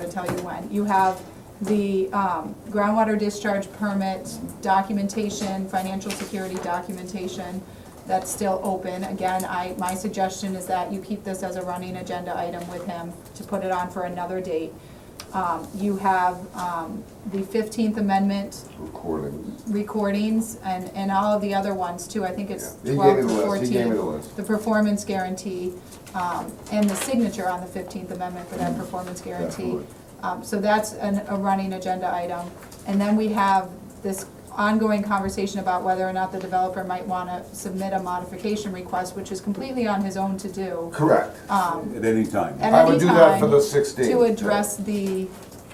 tell you when. You have the um, groundwater discharge permit documentation, financial security documentation, that's still open. Again, I, my suggestion is that you keep this as a running agenda item with him to put it on for another date. Um, You have um, the Fifteenth Amendment recordings. recordings and, and all of the other ones too. I think it's Yeah. He twelve gave me to the list. fourteen. He gave me the list. The performance guarantee, um, and the signature on the Fifteenth Amendment for Mm-hmm. that performance guarantee. Definitely. Um, so that's an, a running agenda item. And then we have this ongoing conversation about whether or not the developer might wanna submit a modification request, which is completely on his own to do. Correct. Um, At any time. at I would any do that for time the 16th. To address the,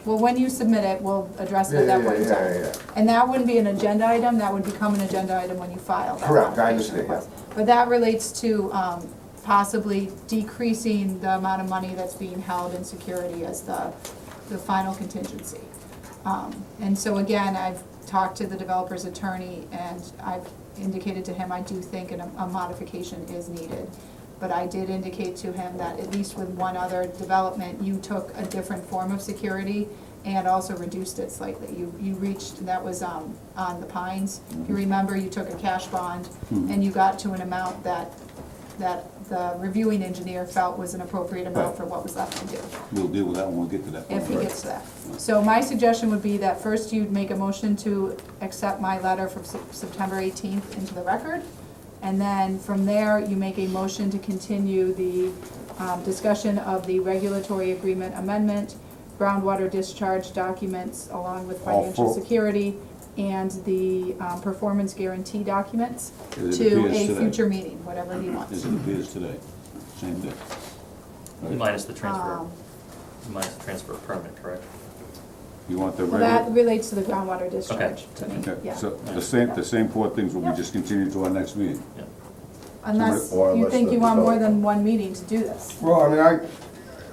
well, when you submit it, we'll address it Yeah, at that yeah, point in yeah, time. yeah, yeah. And that wouldn't be an agenda item, that would become an agenda item when you file that Correct, I modification understand, yeah. request. But that relates to um, possibly decreasing the amount of money that's being held in security as the, the final contingency. Um, And so again, I've talked to the developer's attorney and I've indicated to him I do think an- a modification is needed. But I did indicate to him that at least with one other development, you took a different form of security and also reduced it slightly. You, you reached, that was um, on the Pines. If you remember, you took a cash bond and you got to an amount that, that the reviewing engineer felt was an appropriate amount Right. for what was left to do We'll deal with that when we get to that point. if he gets to that. So my suggestion would be that first you'd make a motion to accept my letter from Sep- September eighteenth into the record. And then from there, you make a motion to continue the um, discussion of the regulatory agreement amendment, groundwater discharge documents along with All financial four. security, and the um, performance guarantee documents As it to appears a today. future meeting, whatever he wants. As it appears today, same day. Right. Minus the transfer, Um, minus the transfer of permit, correct? You want the Well, that regular? relates to the groundwater discharge to me, Okay, yeah. so the same, the same four things will be just continued to our next meeting. Yeah. Unless Or you unless think the you want more developer- than one meeting to do this. Well, I mean, I,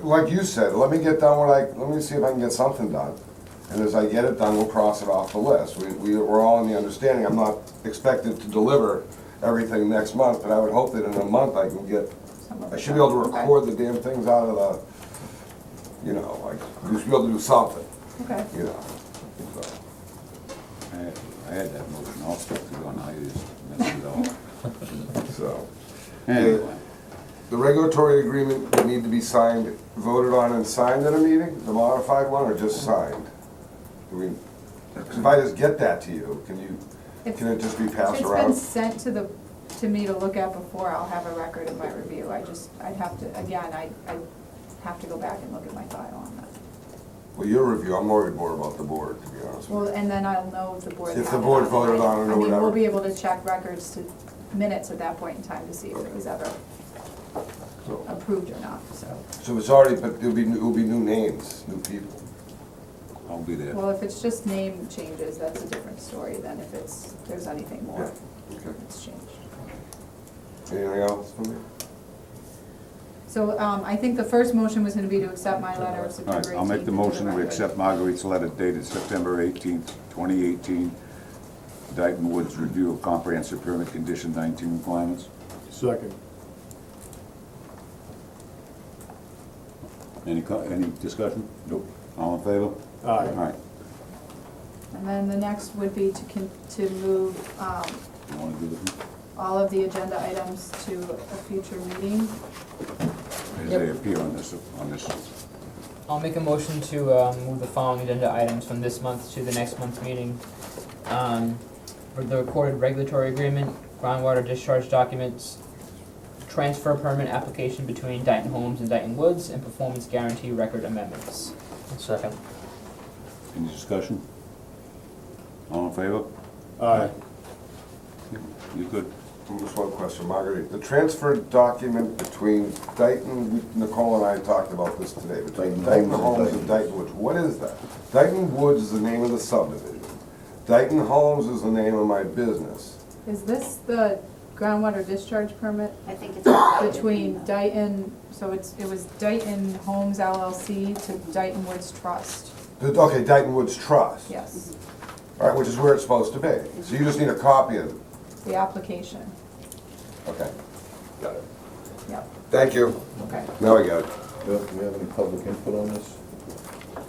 like you said, let me get done what I, let me see if I can get something done. And as I get it done, we'll cross it off the list. We, we, we're all in the understanding, I'm not expected to deliver everything next month, but I would hope that in a month I can get, some of I it. should be able to Okay. record the damn things out of the, you know, like, we should be able to do something, Okay, you know. So, I had- I had that motion, I'll stick to it on how you just messed it all. up. So. Anyway, The regulatory agreement would need to be signed, voted on and signed at a meeting, the modified one, or just signed? I mean, if I just get that to you, can you, If- can it just be if passed it's been around? sent to the, to me to look at before, I'll have a record of my review, I just, I'd have to, again, I, I have to go back and look at my file on that. Well, your review, I'm worried more about the board, to be honest Well, with and then I'll know if the board. If the had it board on. voted on it or I mean, whatever. we'll be able to check records to, minutes at that point in time to see if it was ever you, so. approved or not, so. So it's already, but there'll be, it'll be new names, new people. I'll be there. Well, if it's just name changes, that's a different story than if it's, there's anything more Yeah, okay. that's changed. Anything else from you? So um, I think the first motion was gonna be to accept my letter of All September right, 18th. I'll make the motion, we into the accept record. Marguerite's letter dated September eighteenth, twenty eighteen, Dyton Woods Review of Comprehensive Permit Condition nineteen requirements. Second. Any, co- any discussion? Nope. All in favor? Aye. All right, And then the next would be to con- to move um, you wanna do this? all of the agenda items to a future meeting. As Yep. they appear on this, on this, I'll make a motion to um, move the following agenda items from this month to the next month's meeting. Um, for The recorded regulatory agreement, groundwater discharge documents, transfer permit application between Dyton Homes and Dyton Woods, and performance guarantee record amendments. Second. any discussion? All in favor? Aye. You good? Just one question, Marguerite. The transfer document between Dayton, Nicole and I talked about this today, between Dayton Dayton Homes Homes and and Dayton Woods. What is that? Dayton Woods is the name of the subdivision. Dayton Homes is the name of my business. Is this the groundwater discharge permit I think it's. between Dayton, so it's, it was Dayton Homes LLC to Dayton Woods Trust? The- Okay, Dayton Woods Trust. Yes, All right, which is where it's supposed to be. So you just need a copy of it. the application, Okay. Got it. yep, Thank you. okay. Now I got it. Do we have any public input on this?